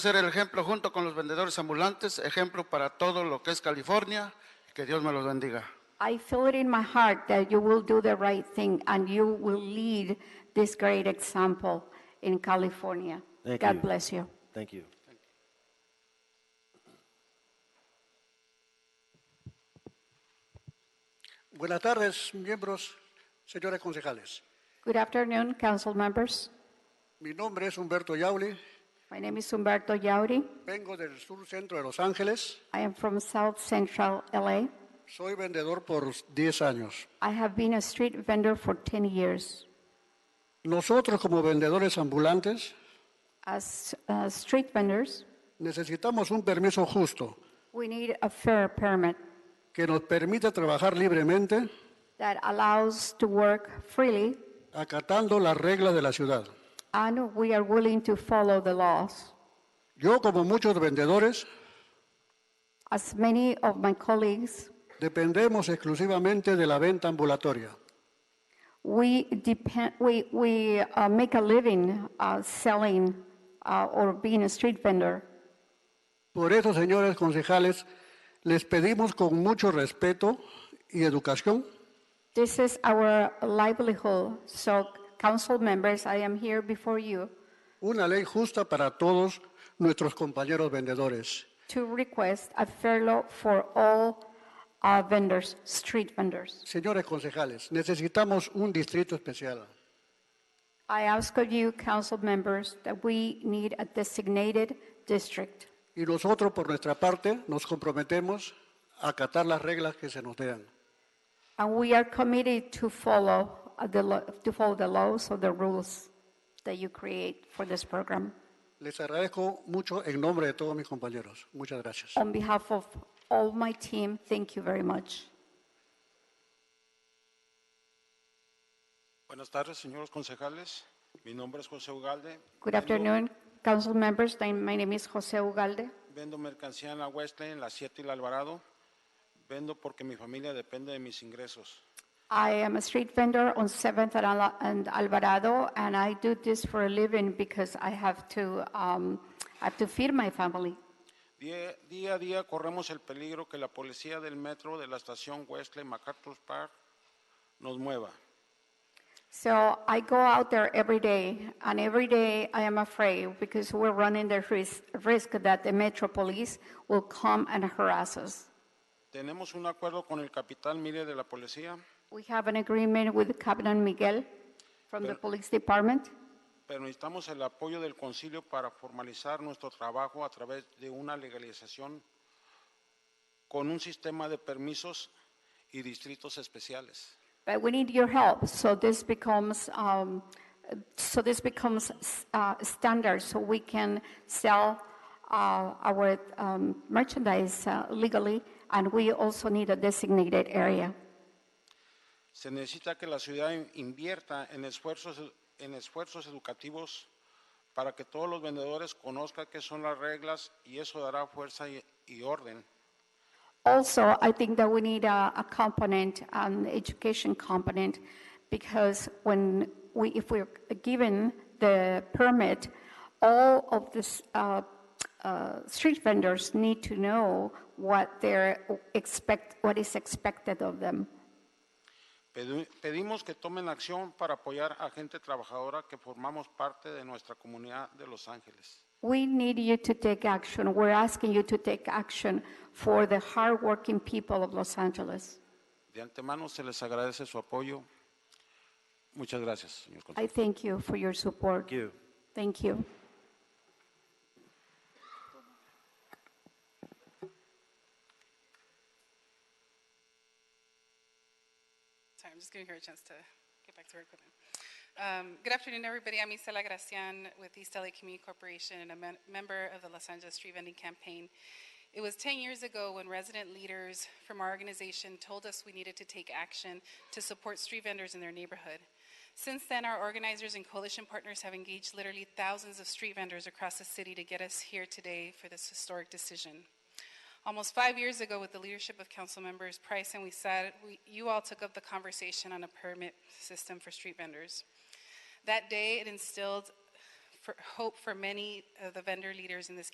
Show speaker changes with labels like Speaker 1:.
Speaker 1: ser el ejemplo junto con los vendedores ambulantes, ejemplo para todo lo que es California. Que Dios me los bendiga.
Speaker 2: I feel it in my heart that you will do the right thing and you will lead this great example in California.
Speaker 3: Thank
Speaker 2: God
Speaker 3: you.
Speaker 2: bless you.
Speaker 3: Thank you.
Speaker 4: Buenas tardes, miembros, señores concejales.
Speaker 2: Good afternoon, council members.
Speaker 4: Mi nombre es Humberto Yauli,
Speaker 2: My name is Humberto Yauri.
Speaker 4: vengo del sur centro de Los Ángeles,
Speaker 2: I am from South Central LA.
Speaker 4: soy vendedor por 10 años.
Speaker 2: I have been a street vendor for 10 years.
Speaker 4: Nosotros como vendedores ambulantes
Speaker 2: As uh, street vendors,
Speaker 4: necesitamos un permiso justo
Speaker 2: we need a fair permit
Speaker 4: que nos permita trabajar libremente
Speaker 2: that allows to work freely
Speaker 4: acatando las reglas de la ciudad.
Speaker 2: and we are willing to follow the laws.
Speaker 4: Yo como muchos vendedores
Speaker 2: As many of my colleagues,
Speaker 4: dependemos exclusivamente de la venta ambulatoria.
Speaker 2: we depend, we, we uh, make a living uh, selling uh, or being a street vendor.
Speaker 4: Por eso, señores concejales, les pedimos con mucho respeto y educación
Speaker 2: This is our livelihood. So, council members, I am here before you
Speaker 4: Una ley justa para todos nuestros compañeros vendedores.
Speaker 2: to request a fair law for all uh, vendors, street vendors.
Speaker 4: Señores concejales, necesitamos un distrito especial.
Speaker 2: I ask of you, council members, that we need a designated district.
Speaker 4: Y nosotros, por nuestra parte, nos comprometemos a acatar las reglas que se nos den.
Speaker 2: And we are committed to follow uh, the, lo- to follow the laws or the rules that you create for this program.
Speaker 4: Les agradezco mucho en nombre de todos mis compañeros. Muchas gracias.
Speaker 2: On behalf of all my team, thank you very much.
Speaker 5: Buenas tardes, señores concejales. Mi nombre es José Ugalde.
Speaker 2: Good
Speaker 5: Vendo-
Speaker 2: afternoon, council members. My my name is Jose Ugalde.
Speaker 5: Vendo mercancía en la Westlane, la 7 y la Alvarado. Vendo porque mi familia depende de mis ingresos.
Speaker 2: I am a street vendor on 7th and Ala- and Alvarado, and I do this for a living because I have to, um, I have to feed my family.
Speaker 5: Día, día a día corremos el peligro que la policía del metro de la estación Westlane MacArthur Park nos mueva.
Speaker 2: So I go out there every day, and every day I am afraid because we're running the risk, risk that the Metro Police will come and harass us.
Speaker 5: Tenemos un acuerdo con el capitán Mire de la policía,
Speaker 2: We have an agreement with Captain Miguel from the police department,
Speaker 5: pero necesitamos el apoyo del concilio para formalizar nuestro trabajo a través de una legalización con un sistema de permisos y distritos especiales.
Speaker 2: but we need your help. So this becomes, um, so this becomes uh, standard, so we can sell uh, our um, merchandise uh, legally, and we also need a designated area.
Speaker 5: Se necesita que la ciudad in- invierta en esfuerzos, en esfuerzos educativos para que todos los vendedores conozcan qué son las reglas y eso dará fuerza y, y orden.
Speaker 2: Also, I think that we need a, a component, an education component, because when we, if we're given the permit, all of this, uh, uh, street vendors need to know what they're expect, what is expected of them.
Speaker 5: Pedu- pedimos que tomen acción para apoyar a gente trabajadora que formamos parte de nuestra comunidad de Los Ángeles.
Speaker 2: We need you to take action. We're asking you to take action for the hardworking people of Los Angeles.
Speaker 5: De antemano se les agradece su apoyo. Muchas gracias, señor consejero.
Speaker 2: I thank you for your support.
Speaker 3: Thank you.
Speaker 2: Thank you.
Speaker 6: Sorry, I'm just giving her a chance to get back to her equipment. Um, Good afternoon, everybody. I'm Isela Gracian with East LA Community Corporation and a men- member of the Los Angeles Street Vending Campaign. It was 10 years ago when resident leaders from our organization told us we needed to take action to support street vendors in their neighborhood. Since then, our organizers and coalition partners have engaged literally thousands of street vendors across the city to get us here today for this historic decision. Almost five years ago, with the leadership of council members Price and we said, we, you all took up the conversation on a permit system for street vendors. That day, it instilled for hope for many of the vendor leaders in this